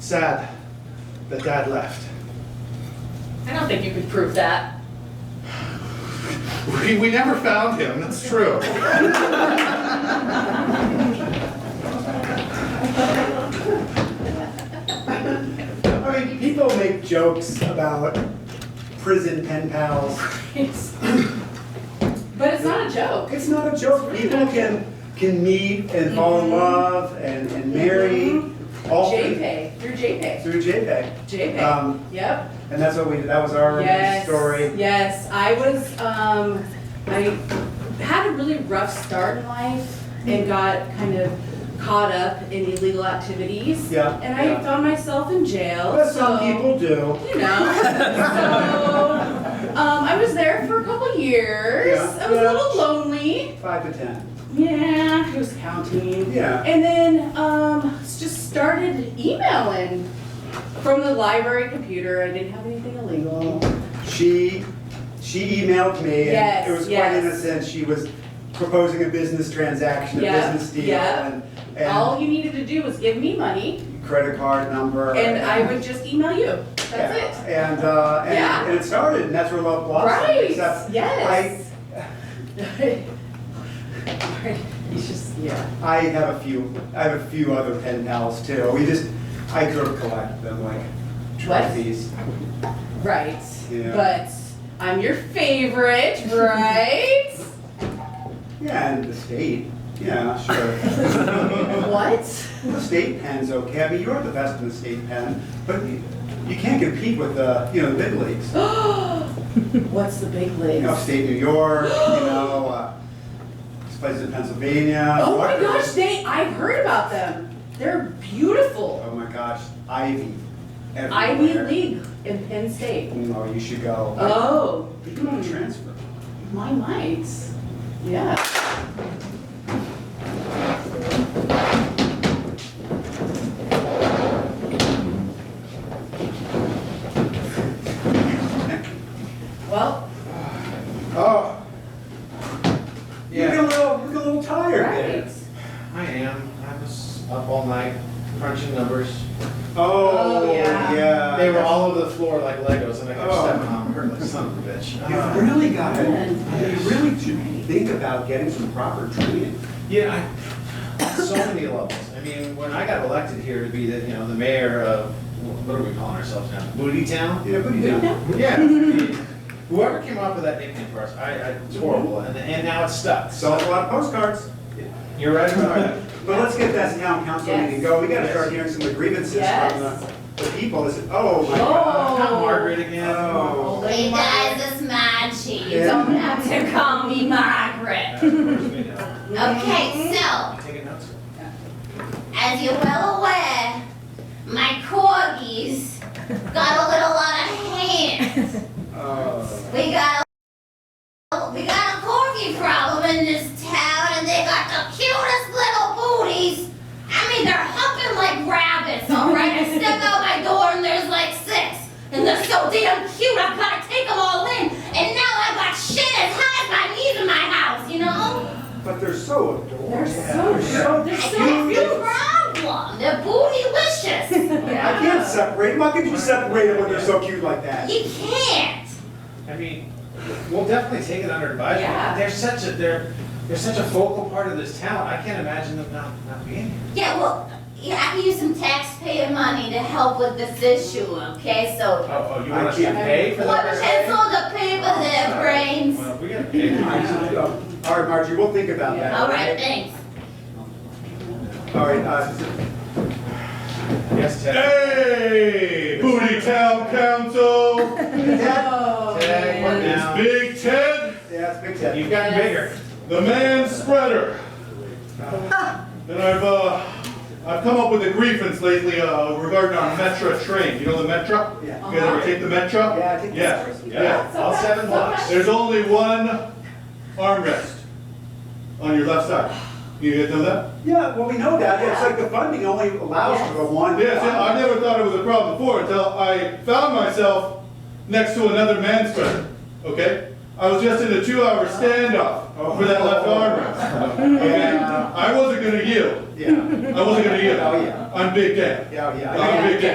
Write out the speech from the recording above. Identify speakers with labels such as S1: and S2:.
S1: sad that dad left.
S2: I don't think you could prove that.
S1: We, we never found him, that's true.
S3: I mean, people make jokes about prison pen pals.
S2: But it's not a joke.
S3: It's not a joke. People can can meet and fall in love and, and marry
S2: Mm-hmm.
S3: all through,
S2: JPay, through JPay,
S3: through JPEG.
S2: JPay.
S3: Um,
S2: Yep.
S3: and that's what we did. That was our
S2: Yes.
S3: story.
S2: Yes, I was, um, I had a really rough start in life and got kind of caught up in illegal activities.
S3: Yeah.
S2: And I
S3: yeah.
S2: found myself in jail.
S3: But some
S2: so-
S3: people do.
S2: you know. so um, I was there for a couple years.
S3: Yeah.
S2: I was
S3: Yeah.
S2: a little lonely.
S3: Five to ten.
S2: Yeah, who's counting?
S3: Yeah.
S2: And then um, s- just started emailing from the library computer. I didn't have anything illegal.
S3: She she emailed me
S2: Yes,
S3: and it was quite
S2: yes.
S3: innocent. She was proposing a business transaction, a
S2: Yeah,
S3: business deal
S2: yeah.
S3: and, and
S2: All you needed to do was give me money,
S3: credit card number.
S2: and I would just email you. That's it.
S3: And, uh, and,
S2: Yeah.
S3: and it started, and that's where love blossomed.
S2: right.
S3: Except
S2: yes. Right. He's just yeah.
S3: I have a few, I have a few other pen pals too. We just, I could have collected them like trophies.
S2: Right.
S3: Yeah.
S2: But I'm your favorite, right?
S3: Yeah, and the state. Yeah, sure.
S2: what?
S3: the state pen's okay. I mean, you're the best in the state pen, but you, you can't compete with the, you know, the big leagues.
S2: What's the big
S3: You know,
S2: league?
S3: state New York, you know, uh, these places in Pennsylvania.
S2: Oh my
S3: Rutgers.
S2: gosh, they I've heard about them. They're beautiful.
S3: Oh my gosh, Ivy.
S2: Ivy
S3: everywhere.
S2: League in Penn State.
S3: No, you should go.
S2: Oh,
S3: You can only transfer.
S2: my might. Yeah. Well,
S3: Oh. You
S1: Yeah.
S3: look a little, you look a little tired
S2: right.
S3: there.
S1: I am, I was up all night crunching numbers.
S2: Oh, yeah.
S1: They were all over the floor like Legos and I kept
S3: Uh, Oh.
S1: stepping on them, hurt like son of a bitch.
S3: You
S1: Uh,
S3: really got it. You
S2: And-
S3: really should think about getting some proper training.
S1: Yeah, I, on so many levels. I mean, when I got elected here to be the, you know, the mayor of, what are we calling ourselves now? Booty Town?
S3: Yeah, but you
S2: Yeah.
S3: don't.
S1: Yeah. I mean, Whoever came up with that nickname for us, I, I, it's horrible, and, and now it's stuck. So,
S3: Sold a lot of postcards.
S1: you're right about that.
S3: But let's get that town council
S2: Yes.
S3: meeting going. We gotta
S1: Yes.
S3: start hearing some grievances
S2: Yes.
S3: from the, the people that said, oh my
S2: Oh.
S3: god.
S1: Not Margaret again.
S3: Oh.
S4: Hey
S2: Lady
S4: guys,
S2: Margaret.
S4: it's Maggie. You
S3: Yeah.
S4: don't have to call me
S1: Uh,
S4: Margaret.
S1: of course we know.
S2: Mm-hmm.
S4: Okay, so,
S1: I'm taking notes.
S4: as you're well aware, my corgis got a little out of hand.
S3: Oh.
S4: We got a, we got a corgi problem in this town, and they got the cutest little booties. I mean, they're humping like rabbits, all right? I step out my door, and there's like six. And they're so damn cute, I've got to take them all in. And now I've got shit as high as my knees in my house, you know?
S3: But they're so
S2: They're
S3: adorable.
S2: so, short. they're
S4: That's
S2: so
S4: the
S2: beautiful.
S4: problem. They're bootylicious.
S3: I can't separate them. How could you separate them when they're so cute like that?
S4: you can't.
S1: I mean, we'll definitely take it under
S2: Yeah.
S1: advisement. They're such a, they're, they're such a focal part of this town. I can't imagine them not, not being here.
S4: Yeah, well, yeah, I can use some taxpayer money to help with this issue, okay? So
S1: Oh, oh, you
S3: I
S1: want us to
S3: can't-
S1: pay for
S4: put
S1: that?
S4: pencil to paper their brains.
S1: Well, we gotta pay. for it.
S3: All right, Margie, we'll think about that.
S4: All right, thanks.
S3: All right, uh,
S1: Yes, Ted.
S5: Hey, Booty Town Council,
S3: Ted,
S2: Oh,
S1: Tag one
S2: man.
S1: now.
S5: it's Big Ted,
S3: yeah, it's Big Ted.
S1: You've gotten
S2: Yes.
S1: bigger.
S5: the man spreader. And I've, uh, I've come up with a grievance lately, uh, regarding our Metra train, you know the Metra?
S3: Yeah.
S5: You guys ever take the Metra?
S3: Yeah, I think
S5: Yeah,
S3: that's-
S5: yeah.
S1: All seven blocks.
S5: There's only one armrest on your left side. You guys know that?
S3: Yeah, well, we know that, it's like the funding only allows for the one.
S5: Yes, yeah, I never thought it was a problem before until I found myself next to another man spreader. Okay? I was just in a two-hour standoff for that left armrest. Okay?
S3: Yeah.
S5: I wasn't gonna yield.
S3: Yeah,
S5: I wasn't gonna yield.
S3: Oh, yeah.
S5: I'm Big Dan.
S3: yeah, yeah. I
S5: I'm Big Dan.